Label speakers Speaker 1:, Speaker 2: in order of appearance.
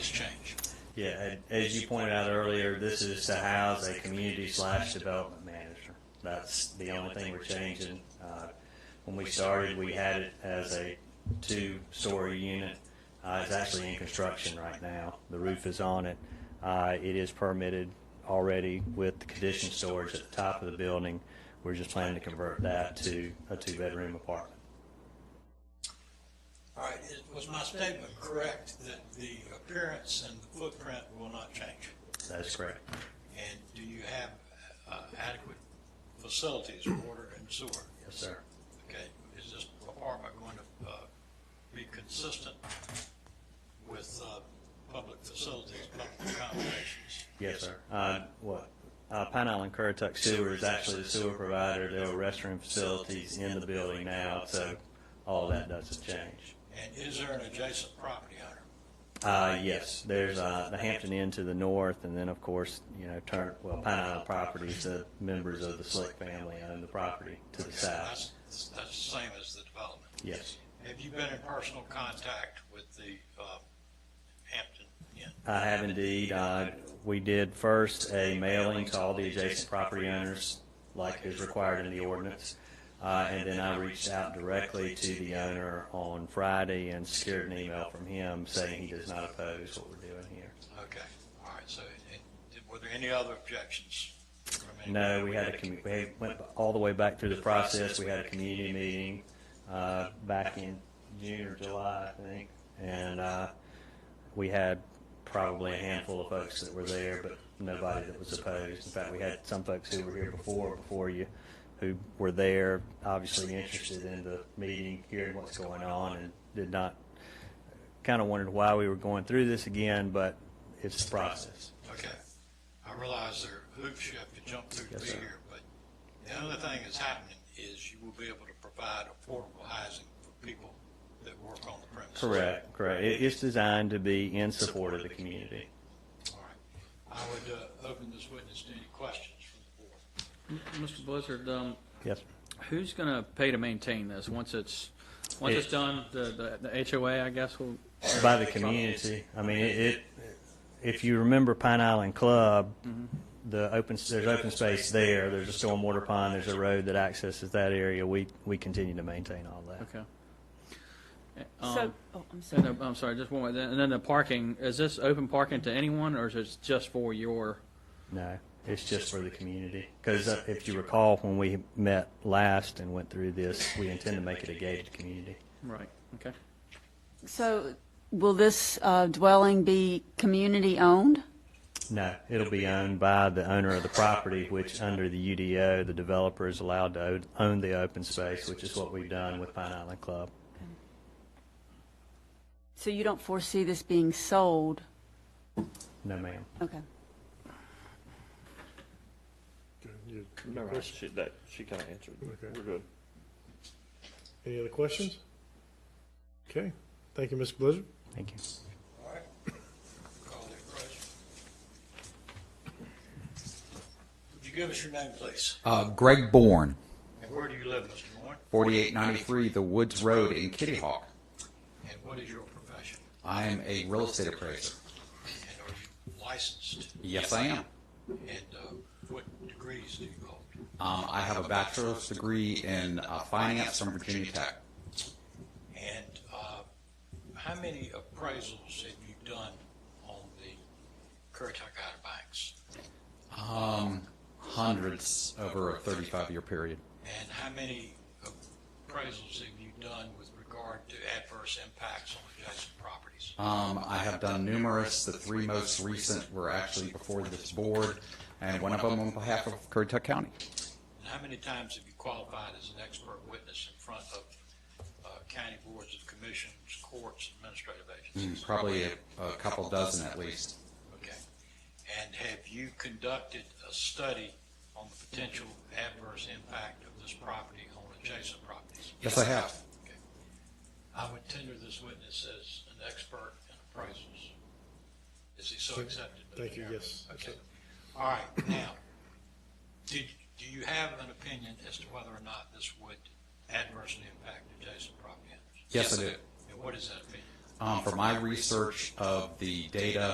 Speaker 1: Yeah, a- as you pointed out earlier, this is to house a community slash development manager. That's the only thing we're changing. Uh, When we started, we had it as a two-story unit. Uh, It's actually in construction right now. The roof is on it. Uh, It is permitted already with the conditioned storage at the top of the building. We're just planning to convert that to a two-bedroom apartment.
Speaker 2: All right, is- was my statement correct that the appearance and the footprint will not change?
Speaker 1: That is correct.
Speaker 2: And do you have uh, adequate facilities, water and sewer?
Speaker 1: Yes, sir.
Speaker 2: Okay, is this apartment going to uh, be consistent with uh, public facilities, public accommodations?
Speaker 1: Yes, sir. Uh, what? Uh, Pine Island Currituck Sewer is actually the sewer provider. There are restroom facilities in the building now, so all that doesn't change.
Speaker 2: And is there an adjacent property owner?
Speaker 1: Uh, yes, there's, uh, the Hampton Inn to the north, and then, of course, you know, turn, well, Pine Island Properties, the members of the Slick family own the property to the south.
Speaker 2: That's, that's the same as the development.
Speaker 1: Yes.
Speaker 2: Have you been in personal contact with the uh, Hampton Inn?
Speaker 1: I have indeed. Uh, we did first a mailing to all the adjacent property owners, like is required in the ordinance. Uh, and then I reached out directly to the owner on Friday and secured an email from him saying he does not oppose what we're doing here.
Speaker 2: Okay, all right, so it- it- were there any other objections? from anybody?
Speaker 1: No, we had a, commu- we went all the way back through the process. We had a community meeting, uh, back in June or July, I think. And, uh, we had probably a handful of folks that were there, but nobody that was opposed. In fact, we had some folks who were here before, before you, who were there, obviously interested in the meeting, hearing what's going on and did not, kind of wondered why we were going through this again, but it's the process.
Speaker 2: Okay, I realize there are hoops you have to jump through to
Speaker 1: Yes,
Speaker 2: be
Speaker 1: sir.
Speaker 2: here, but the other thing that's happening is you will be able to provide affordable housing for people that work on the premises.
Speaker 1: Correct, correct. It, it's designed to be in support of the community.
Speaker 2: All right, I would uh, open this witness to any questions from the board.
Speaker 3: Mr. Blizzard, um,
Speaker 1: Yes.
Speaker 3: who's going to pay to maintain this once it's, once it's done, the, the the HOA, I guess, will,
Speaker 1: By the community. I mean, it, it, if you remember Pine Island Club, the open, there's open space there, there's a stormwater pond, there's a road that accesses that area. We, we continue to maintain all that.
Speaker 3: okay.
Speaker 4: So,
Speaker 3: Um,
Speaker 4: oh, I'm
Speaker 3: And,
Speaker 4: sorry.
Speaker 3: the- I'm sorry, just one more, and then the parking, is this open parking to anyone, or is it just for your,
Speaker 1: No, it's just for the community. Because if you recall, when we met last and went through this, we intend to make it a gated community.
Speaker 3: right, okay?
Speaker 4: So will this uh, dwelling be community-owned?
Speaker 1: No, it'll be owned by the owner of the property, which under the UDO, the developer is allowed to o- own the open space, which is what we've done with Pine Island Club.
Speaker 4: So you don't foresee this being sold?
Speaker 1: No, ma'am.
Speaker 4: Okay.
Speaker 5: You-
Speaker 6: No, right.
Speaker 5: question-
Speaker 6: she, that, she kind of answered.
Speaker 5: Okay.
Speaker 6: We're good.
Speaker 5: Any other questions? Okay, thank you, Mr. Blizzard.
Speaker 1: Thank you.
Speaker 2: All right, call the question. Would you give us your name, please?
Speaker 7: Uh, Greg Bourne,
Speaker 2: And where do you live, Mr. Warren?
Speaker 7: 4893 The Woods Road in Kitty Hawk.
Speaker 2: And what is your profession?
Speaker 7: I am a real estate appraiser.
Speaker 2: And are you licensed?
Speaker 7: Yes, I am.
Speaker 2: And uh, what degrees do you hold?
Speaker 7: Um, I have a bachelor's degree in uh, finance from Virginia Tech.
Speaker 2: And uh, how many appraisals have you done on the Currituck Outer Banks?
Speaker 7: Um, hundreds over a 35 year period.
Speaker 2: And how many appraisals have you done with regard to adverse impacts on adjacent properties?
Speaker 7: Um, I have done numerous. The three most recent were actually before this board, and one of them on behalf of Currituck County.
Speaker 2: And how many times have you qualified as an expert witness in front of uh, county boards of commissions, courts, administrative agencies?
Speaker 7: Probably a, a couple dozen at least.
Speaker 2: Okay. And have you conducted a study on the potential adverse impact of this property on adjacent properties?
Speaker 7: Yes, I have.
Speaker 2: Okay. I would tender this witness as an expert in appraisals. Is he so accepted? Mr.
Speaker 5: Thank you,
Speaker 2: Chairman?
Speaker 5: yes.
Speaker 2: Okay. All right, now, did, do you have an opinion as to whether or not this would adversely impact adjacent property owners?
Speaker 7: Yes, I do.
Speaker 2: And what is that opinion?
Speaker 7: Um, for my research of the data